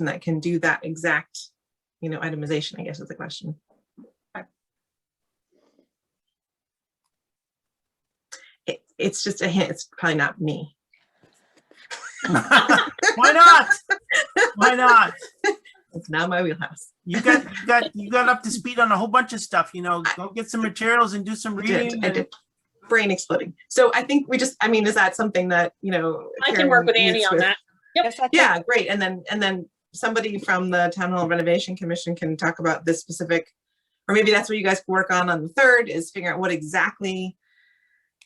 and that can do that exact, you know, itemization, I guess is the question. It, it's just a hint, it's probably not me. Why not? Why not? It's not my wheelhouse. You got, you got, you got up to speed on a whole bunch of stuff, you know, go get some materials and do some I did, reading. I and- did. Brain exploding. So I think we just, I mean, is that something that, you know? I can work Karen with Annie meets on that. Yes, I think- Yeah, great. And then, and then somebody from the Town Hall Renovation Commission can talk about this specific, or maybe that's what you guys can work on on the third is figure out what exactly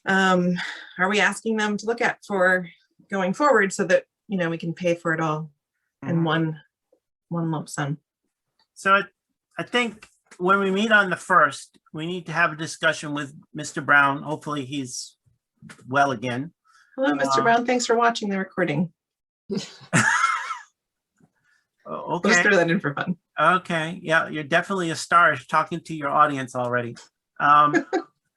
um, are we asking them to look at for going forward so that, you know, we can pay for it all in one, one lump sum. So I- I think when we meet on the first, we need to have a discussion with Mr. Brown. Hopefully he's well again. Hello, Mr. Um, Brown. Thanks for watching the recording. Oh, I'll Just Okay, throw that in for fun. okay. Yeah, you're definitely a star talking to your audience already. Um,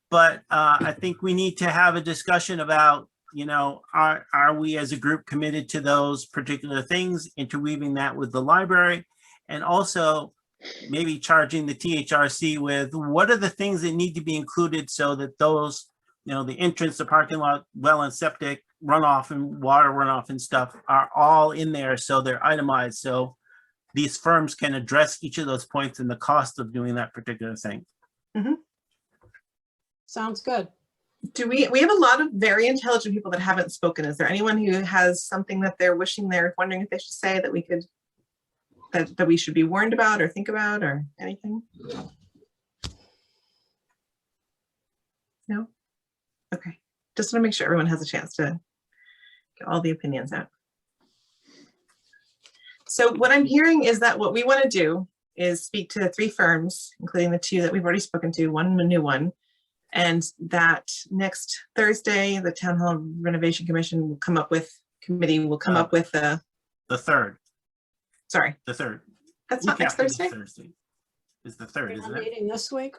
but uh, I think we need to have a discussion about, you know, are, are we as a group committed to those particular things, interweaving that with the library? And also maybe charging the THRC with what are the things that need to be included so that those, you know, the entrance, the parking lot, well and septic runoff and water runoff and stuff are all in there, so they're itemized, so these firms can address each of those points and the cost of doing that particular thing. Sounds good. Do we, we have a lot of very intelligent people that haven't spoken. Is there anyone who has something that they're wishing they're wondering if they should say that we could, that, that we should be warned about or think about or anything? No? Okay, just want to make sure everyone has a chance to get all the opinions out. So what I'm hearing is that what we want to do is speak to the three firms, including the two that we've already spoken to, one new one. And that next Thursday, the Town Hall Renovation Commission will come up with, committee will Oh. come up with the, The third, sorry, the third. that's not week next after this Thursday? Thursday is the third, You're not isn't it? meeting this week?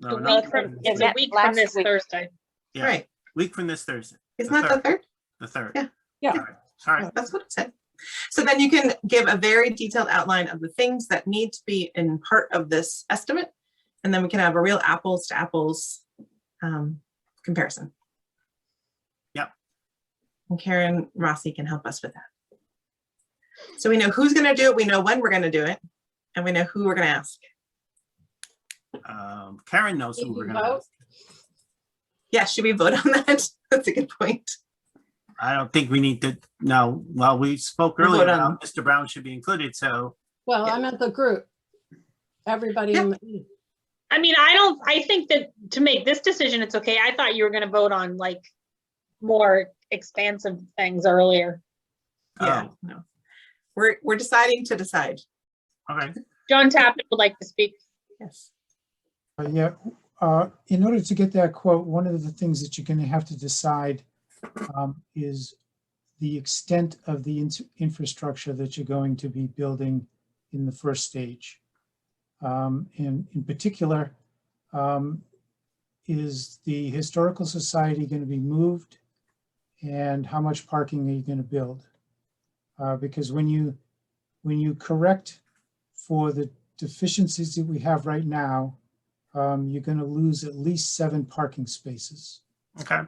No, The not week third, from, the it's third. a week from this Thursday. Yeah, Right, Week from this Thursday, isn't the that the third? the third. Yeah. Yeah. All right, All right, That's what it said. So then you can give a very detailed outline of the things that need to be in part of this estimate. And then we can have a real apples to apples um, comparison. Yep. And Karen Rossi can help us with that. So we know who's going to do it, we know when we're going to do it, and we know who we're going to ask. um, Karen knows who Did we're you gonna vote? ask. Yeah, should we vote on that? That's a good point. I don't think we need to, no, well, we spoke We'll earlier vote on- about Mr. Brown should be included, so Well, Yeah. I meant the group. Everybody in the, I mean, I don't, I think that to make this decision, it's okay. I thought you were gonna vote on like more expansive things earlier. Yeah, Um, no. We're, we're deciding to decide. okay. John Tappan would like to speak. Yes. Uh, Yeah, uh, in order to get that quote, one of the things that you're going to have to decide um, is the extent of the ins- infrastructure that you're going to be building in the first stage. Um, And in particular, um, is the Historical Society going to be moved? And how much parking are you going to build? Uh, Because when you, when you correct for the deficiencies that we have right now, um, you're going to lose at least seven parking spaces. Okay,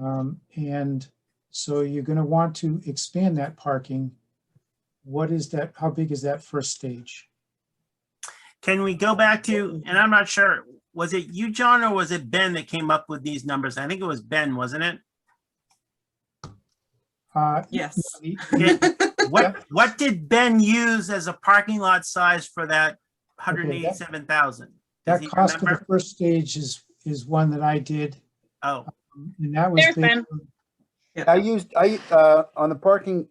Um, and so you're going to want to expand that parking. What is that? How big is that first stage? can we go back to, and I'm not sure, was it you, John, or was it Ben that came up with these numbers? I think it was Ben, wasn't it? Uh, Yes. the- Did- What, Yep. what did Ben use as a parking lot size for that hundred and Okay, that- eighty-seven thousand? Does That he cost for the remember? first stage is, is one that I did. Oh, And that was There's based Ben. on- I used, I, uh, on the parking,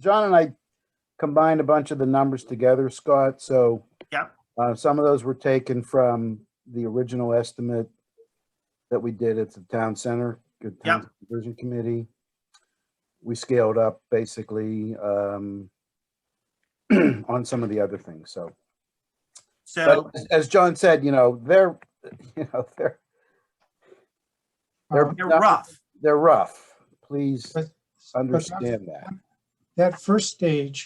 John and I combined a bunch of the numbers together, Scott, so. Yep. Uh, some of those were taken from the original estimate that we did at the town center, good town conversion committee. We scaled up basically, um, on some of the other things, so. so, But as John said, you know, they're, you know, they're, uh, they're rough. um, they're rough. Please But- but that's- understand that. that first stage